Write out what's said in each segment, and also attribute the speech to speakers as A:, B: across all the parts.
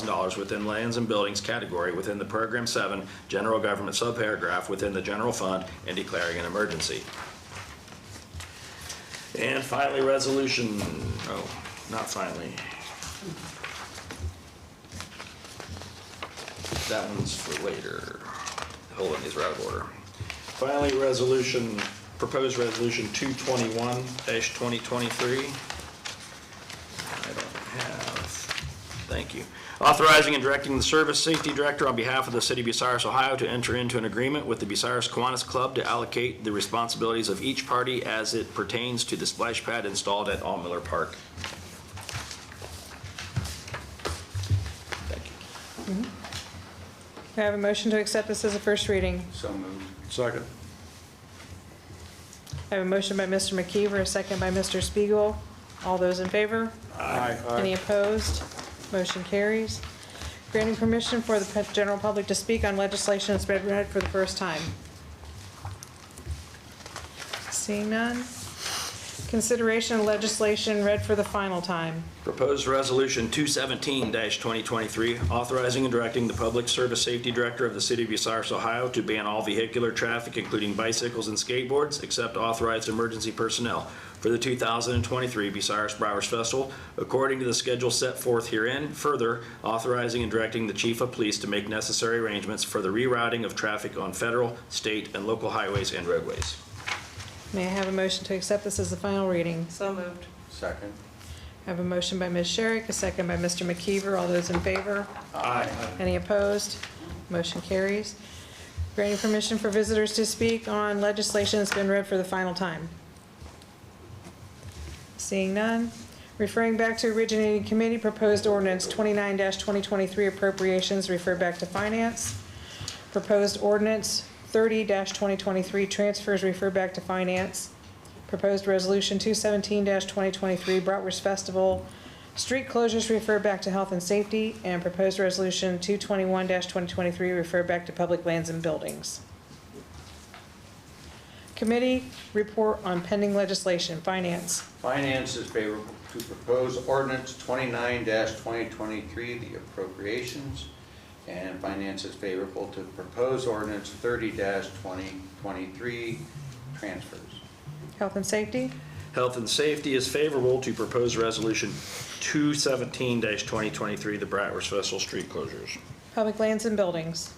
A: dollars within lands and buildings category within the Program 7 General Government subparagraph within the general fund and declaring an emergency. And finally, resolution, oh, not finally. That one's for later. Hold on, these are out of order. Finally, resolution, proposed resolution 221-2023. I don't have, thank you. Authorizing and directing the Service Safety Director on behalf of the City of Bucyrus, Ohio, to enter into an agreement with the Bucyrus Kiwanis Club to allocate the responsibilities of each party as it pertains to the splash pad installed at All Miller Park. Thank you.
B: May I have a motion to accept this as a first reading?
C: So moved.
D: Second.
B: I have a motion by Mr. McKeever, a second by Mr. Spiegel. All those in favor? Any
D: Aye.
B: opposed? Motion carries. Granting permission for the pe- general public to speak on legislation that's been read for the first time. Seeing none? Consideration of legislation read for the final time.
A: Proposed Resolution 217-2023, authorizing and directing the Public Service Safety Director of the City of Bucyrus, Ohio to ban all vehicular traffic, including bicycles and skateboards, except authorized emergency personnel for the 2023 Bucyrus Browers Festival, according to the schedule set forth herein. Further, authorizing and directing the Chief of Police to make necessary arrangements for the rerouting of traffic on federal, state, and local highways and roadways.
B: May I have a motion to accept this as the final reading?
E: So moved.
C: Second.
B: I have a motion by Ms. Sherrick, a second by Mr. McKeever. All those in favor?
C: Aye.
B: Any opposed? Motion carries. Granting permission for visitors to speak on legislation that's been read for the final time. Seeing none. Referring back to originating committee, proposed ordinance 29-2023 appropriations referred back to finance. Proposed ordinance 30-2023 transfers referred back to finance. Proposed resolution 217-2023 Bratwurst Festival street closures referred back to health and safety. And proposed resolution 221-2023 referred back to public lands and buildings. Committee report on pending legislation, finance.
C: Finance is favorable to propose ordinance twenty-nine twenty twenty-three, the appropriations. And finance is favorable to propose ordinance thirty twenty twenty-three, transfers.
B: Health and safety?
A: Health and Safety is favorable to proposed Resolution 217-2023, the Bratwurst Festival street closures.
B: Public lands and buildings.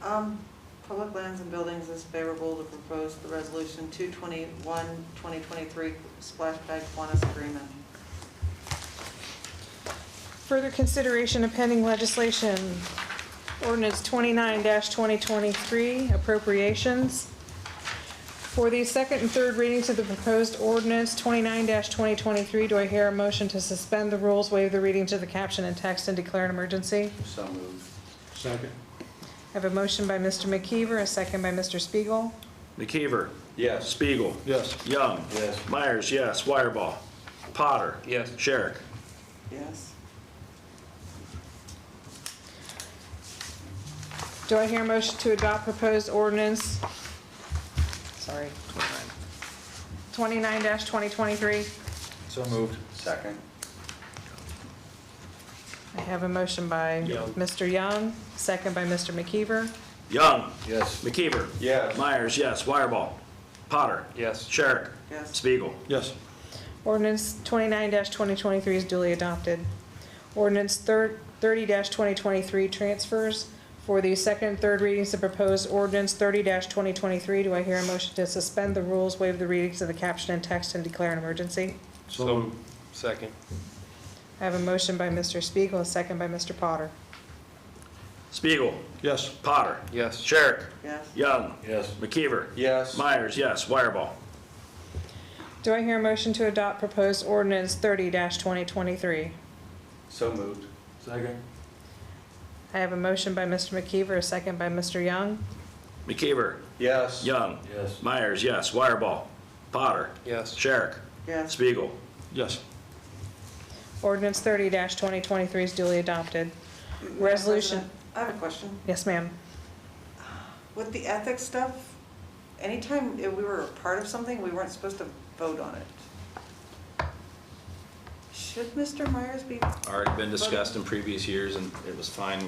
E: Um, Public Lands and Buildings is favorable to propose the resolution 221, 2023 splash pad Kiwanis agreement.
B: Further consideration of pending legislation. Ordinance twenty-nine twenty twenty-three appropriations. For the second and third readings of the proposed ordinance twenty-nine twenty twenty-three, do I hear a motion to suspend the rules, waive the reading to the caption and text, and declare an emergency?
C: So moved.
D: Second.
B: I have a motion by Mr. McKeever, a second by Mr. Spiegel.
A: McKeever.
C: Yes.
A: Spiegel.
D: Yes.
A: Young.
C: Yes.
A: Myers, yes. Wireball. Potter.
C: Yes.
A: Sherrick.
E: Yes.
B: Do I hear a motion to adopt proposed ordinance? Sorry. Twenty-nine twenty twenty-three.
C: So moved. Second.
B: I have a motion by
A: Young.
B: Mr. Young, second by Mr. McKeever.
A: Young.
C: Yes.
A: McKeever.
C: Yes.
A: Myers, yes. Wireball. Potter.
C: Yes.
A: Sherrick.
E: Yes.
A: Spiegel.
D: Yes.
B: Ordinance twenty-nine twenty twenty-three is duly adopted. Ordinance thirty twenty twenty-three transfers. For the second and third readings of proposed ordinance thirty twenty twenty-three, do I hear a motion to suspend the rules, waive the readings of the caption and text, and declare an emergency?
D: So,
F: Second.
B: I have a motion by Mr. Spiegel, a second by Mr. Potter.
A: Spiegel.
D: yes.
A: Potter.
F: Yes.
A: Sherrick.
E: Yes.
A: Young.
D: Yes.
A: McKeever.
C: Yes.
A: Myers, yes. Wireball.
B: Do I hear a motion to adopt proposed ordinance thirty twenty twenty-three?
C: So moved.
D: Second.
B: I have a motion by Mr. McKeever, a second by Mr. Young.
A: McKeever.
C: Yes.
A: Young.
D: Yes.
A: Myers, yes. Wireball. Potter.
F: Yes.
A: Sherrick.
E: Yes.
A: Spiegel.
D: Yes.
B: Ordinance thirty twenty twenty-three is duly adopted. Resolution,
E: I have a question.
B: yes, ma'am.
E: With the ethics stuff, anytime if we were a part of something, we weren't supposed to vote on it. Sh- Should Mr. Myers be
A: Already been discussed in previous years, and it was fine